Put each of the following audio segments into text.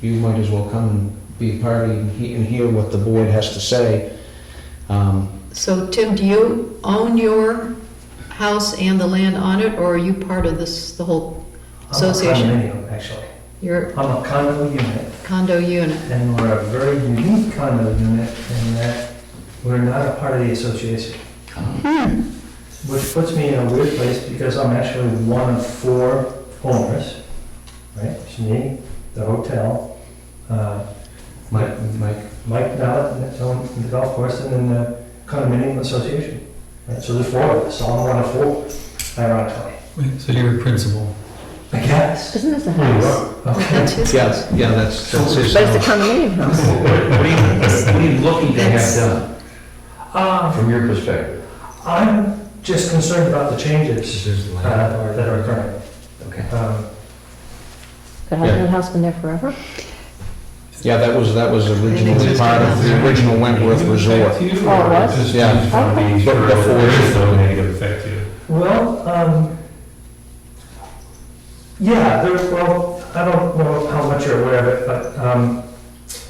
you might as well come and be a party and he- and hear what the board has to say. Um, So Tim, do you own your house and the land on it, or are you part of this, the whole association? I'm a condominium, actually. Your I'm a condo unit, condo unit? and we're a very unique condo unit in that we're not a part of the association. Which puts me in a weird place because I'm actually one of four owners, right? It's me, the hotel, uh, Mike, Mike, Mike Mallett, and his own- the golf course, and then the condominium association. Right, so there's four of us, so I'm one of four, ironically. Wait, So you're a principal. I guess. Isn't this a you house? Okay. That's his yes, yeah, that's, that's his. But it's a condominium house. What are you, what are you looking to have done Um, from your perspective? I'm just concerned about the changes There's uh, land. that are occurring. Okay. Um, But hasn't that house been there forever? Yeah, that was, that was originally part of the original Wentworth Resort. Oh, it was? Yeah. But Being sure before- there is no negative effect to you. Well, um, yeah, there, well, I don't know how much you're aware of it, but um,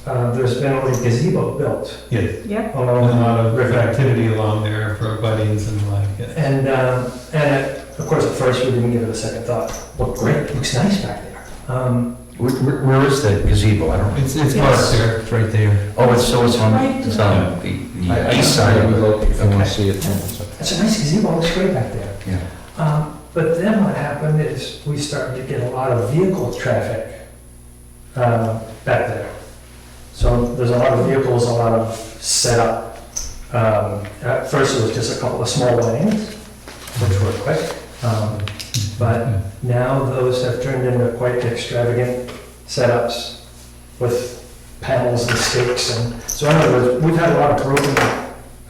uh, there's been a little gazebo built Yes. And a along, uh, lot of river activity along there for buddings and like, yeah. and, um, and it- of course, at first, we didn't give it a second thought. Look great, looks nice back there. Um, Where, where where is the gazebo? I don't, It's, it's Yes. parked there, it's right there. oh, it's, so it's on, it's on the- the east side I- I- of it. If you want to Okay. see it. It's a nice gazebo, looks great back there. Yeah. Um, But then what happened is we started to get a lot of vehicle traffic uh, back there. So there's a lot of vehicles, a lot of setup. Um, At first, it was just a couple of small lanes, which were quick. Um, But now those have turned into quite extravagant setups with panels and stakes and, so in other words, we've had a lot of broken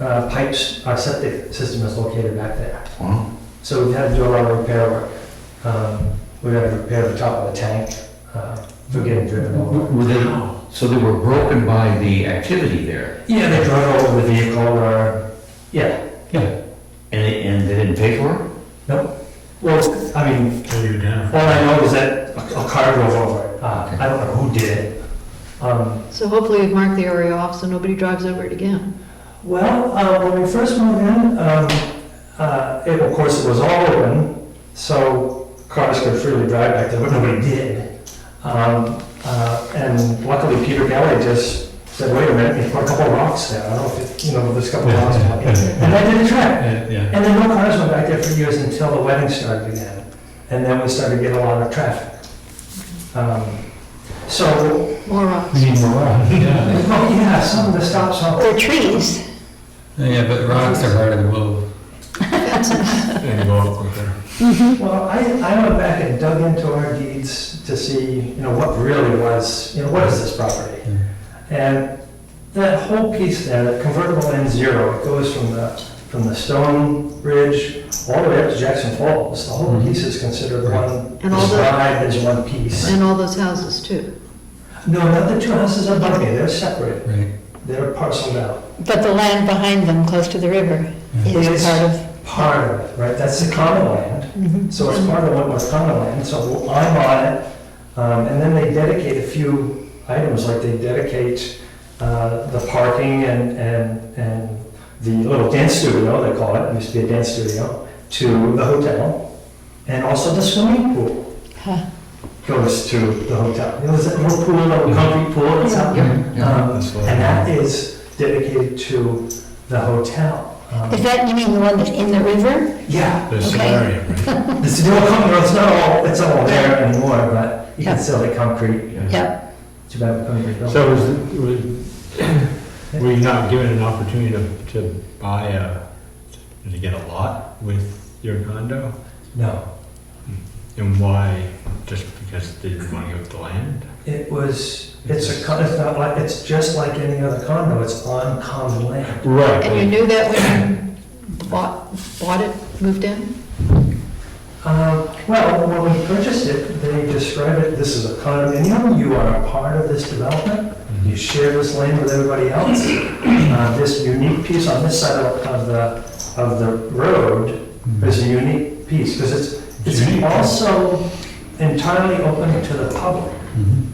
uh, pipes. Our septic system is located back there. Wow. So we've had to do a lot of repair work. Um, we had to repair the top of the tank, uh, for getting driven Were over. were they, so they were broken by the activity there? Yeah, they drove over the vehicle or, yeah, And they, and they didn't pay for it? no. Well, I mean, all I know is that a a car drove over it. Uh, I don't know who did it. Um, So hopefully you've marked the area off so nobody drives over it again. well, uh, when we first moved in, um, uh, it, of course, it was all open, so cars could freely drive back there, but nobody did. Um, uh, and luckily Peter Galley just said, wait a minute, you put a couple of rocks there, I don't know if, it- you know, there's a couple of rocks. out here." And that did the trick. And, yeah. And then no cars went back there for years until the wedding started again. And then we started getting a lot of traffic. Um, So, More rocks. need more rock. Yeah, oh yeah, some of the stops on. They're trees. yeah, but rocks are harder to move. Well, I, I went back and dug into our deeds to see, you know, what really was, you know, what is this property? And that whole piece there, that convertible N zero, it goes from the, from the stone ridge all the way up to Jackson Falls. The whole piece is considered one, And all the- described as one piece. And all those houses too. No, not the two houses are bumpy, they're separate, Right. they're parceled out. But the land behind them, close to the river, It's- is part of, Part of it, right, that's the common land. So it's part of what was common land, so I'm on it. Um, And then they dedicate a few items, like they dedicate uh, the parking and, and, and the little dance studio, they call it, it used to be a dance studio, to the hotel. And also the swimming pool Huh. goes to the hotel. You know, there's that little pool, little concrete pool that's out there. Um, That's what I- And that is dedicated to the hotel. Um, is that, you mean the one that's in the river? Yeah. Okay. It's still concrete, it's not all, it's not all there anymore, but you can Yeah. still the concrete, Yep, too bad the concrete building. So was, was- were you not given an opportunity to, to buy a, to get a lot with your condo? No, And why, just because they didn't want to give up the land? it was, it's a, con- it's not like, it's just like any other condo, it's on common land. And you knew that when you bought, bought it, moved in? Um, Well, when we purchased it, they described it, this is a condominium, you are a part of this development, you share this land with everybody else. Uh, This unique piece on this side of of the, of the road is a unique piece, because Mm-hmm. it's, it's Unique. also entirely open to the public. Mhm.